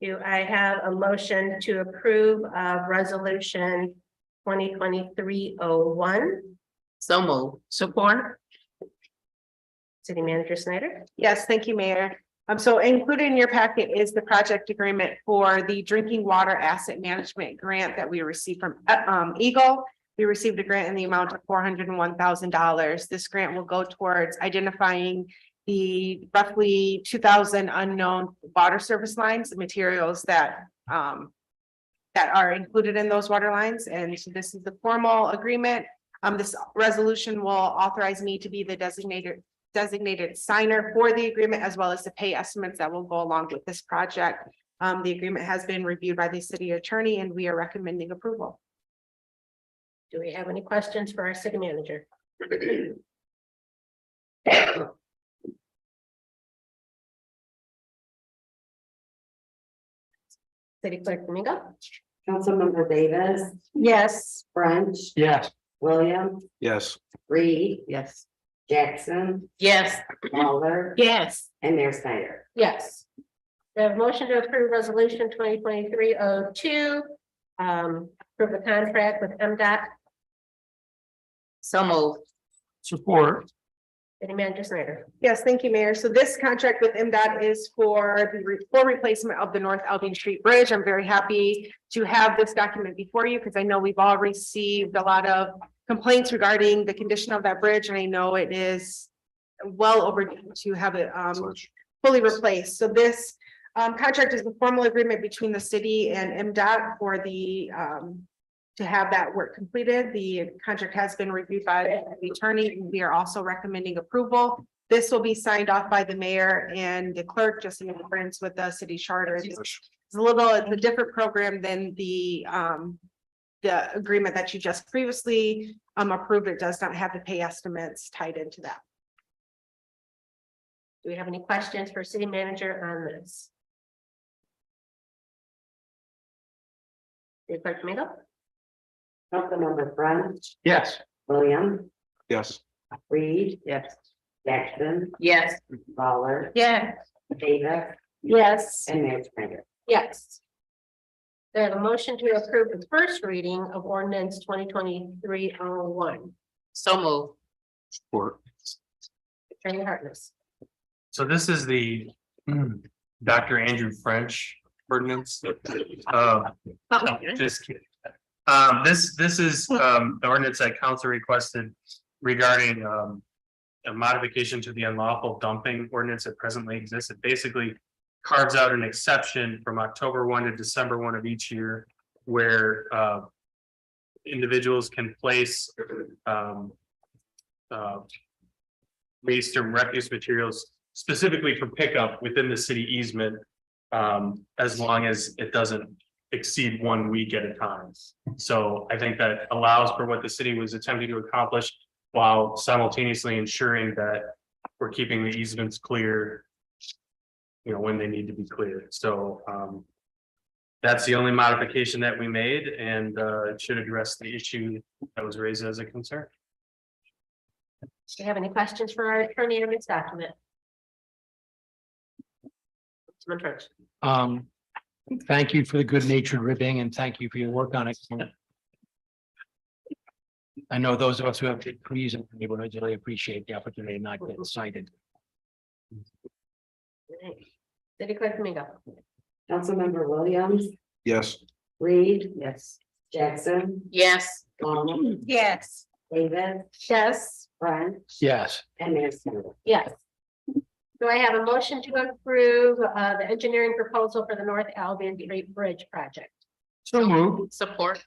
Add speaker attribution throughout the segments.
Speaker 1: Do I have a motion to approve of resolution twenty twenty-three oh one?
Speaker 2: So moved. Support?
Speaker 1: City Manager Snyder?
Speaker 3: Yes, thank you, Mayor. Um, so included in your packet is the project agreement for the drinking water asset management grant that we received from uh, um Eagle. We received a grant in the amount of four hundred and one thousand dollars. This grant will go towards identifying the roughly two thousand unknown water service lines, the materials that um that are included in those water lines, and so this is the formal agreement. Um, this resolution will authorize me to be the designated designated signer for the agreement as well as the pay estimates that will go along with this project. Um, the agreement has been reviewed by the city attorney and we are recommending approval.
Speaker 1: Do we have any questions for our city manager? City Clerk Domingo?
Speaker 4: Councilmember Davis,
Speaker 1: Yes.
Speaker 4: French,
Speaker 5: Yes.
Speaker 4: Williams,
Speaker 5: Yes.
Speaker 4: Reed,
Speaker 2: Yes.
Speaker 4: Jackson,
Speaker 2: Yes.
Speaker 4: Lawler,
Speaker 2: Yes.
Speaker 4: and Mayor Snyder.
Speaker 1: Yes. We have a motion to approve resolution twenty twenty-three oh two. Um, approve the contract with M dot,
Speaker 2: So moved.
Speaker 5: Support.
Speaker 1: City Manager Snyder.
Speaker 3: Yes, thank you, Mayor. So this contract with MDOT is for the re- for replacement of the North Albion Street Bridge. I'm very happy to have this document before you because I know we've all received a lot of complaints regarding the condition of that bridge and I know it is well overdue to have it um fully replaced. So this um contract is the formal agreement between the city and MDOT for the um. To have that work completed. The contract has been reviewed by the attorney. and We are also recommending approval. This will be signed off by the mayor and the clerk, just in accordance with the city charter. It's it's a little, it's a different program than the um. The agreement that you just previously um approved. It does not have the pay estimates tied into that.
Speaker 1: Do we have any questions for city manager on this? City Clerk Domingo?
Speaker 4: Councilmember French,
Speaker 5: Yes.
Speaker 4: Williams,
Speaker 5: Yes.
Speaker 4: Reed,
Speaker 2: Yes.
Speaker 4: Jackson,
Speaker 2: Yes.
Speaker 4: Lawler,
Speaker 2: Yeah.
Speaker 4: Davis,
Speaker 1: Yes.
Speaker 4: and Mayor Snyder.
Speaker 1: Yes. They have a motion to approve the first reading of ordinance twenty twenty-three oh one,
Speaker 2: So moved.
Speaker 5: Support.
Speaker 1: Attorney Hartness.
Speaker 6: So this is the mm, Dr. Andrew French ordinance. Uh, no, Just kidding. Um, this, this is, um, the ordinance that council requested regarding, um, a modification to the unlawful dumping ordinance that presently exists. It basically carves out an exception from October one to December one of each year where, uh, individuals can place, um, uh, waste and refuse materials specifically for pickup within the city easement. Um, as long as it doesn't exceed one week at a time. So I think that allows for what the city was attempting to accomplish while simultaneously ensuring that we're keeping the easements clear. You know, when they need to be cleared. So, um, that's the only modification that we made and, uh, it should address the issue that was raised as a concern.
Speaker 1: Do you have any questions for our attorney on this document? Councilman French.
Speaker 7: Um, thank you for the good natured ribbing and thank you for your work on it. I know those of us who have degrees in the neighborhood really appreciate the opportunity to not get cited.
Speaker 1: Alright. City Clerk Domingo.
Speaker 4: Councilmember Williams,
Speaker 5: Yes.
Speaker 4: Reed,
Speaker 2: Yes.
Speaker 4: Jackson,
Speaker 2: Yes.
Speaker 4: Lawler,
Speaker 2: Yes.
Speaker 4: Davis,
Speaker 1: Yes.
Speaker 4: French,
Speaker 7: Yes,
Speaker 4: and Mayor Snyder.
Speaker 1: Yes. Do I have a motion to approve uh the engineering proposal for the North Albion Street Bridge project?
Speaker 5: So moved.
Speaker 2: Support?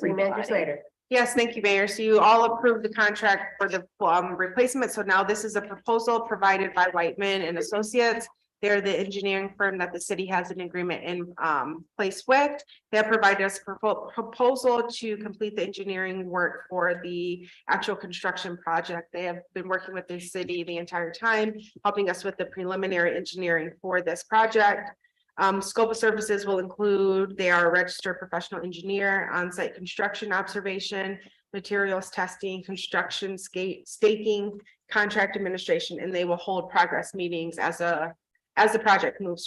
Speaker 1: City Manager Slater.
Speaker 3: Yes, thank you, Mayor. So you all approved the contract for the um replacement. So now this is a proposal provided by Whiteman and Associates. They're the engineering firm that the city has an agreement in um place with. They have provided us a propo- proposal to complete the engineering work for the actual construction project. They have been working with the city the entire time, helping us with the preliminary engineering for this project. Um, scope of services will include, they are a registered professional engineer, on-site construction observation, materials testing, construction skate, staking, contract administration, and they will hold progress meetings as a, as the project moves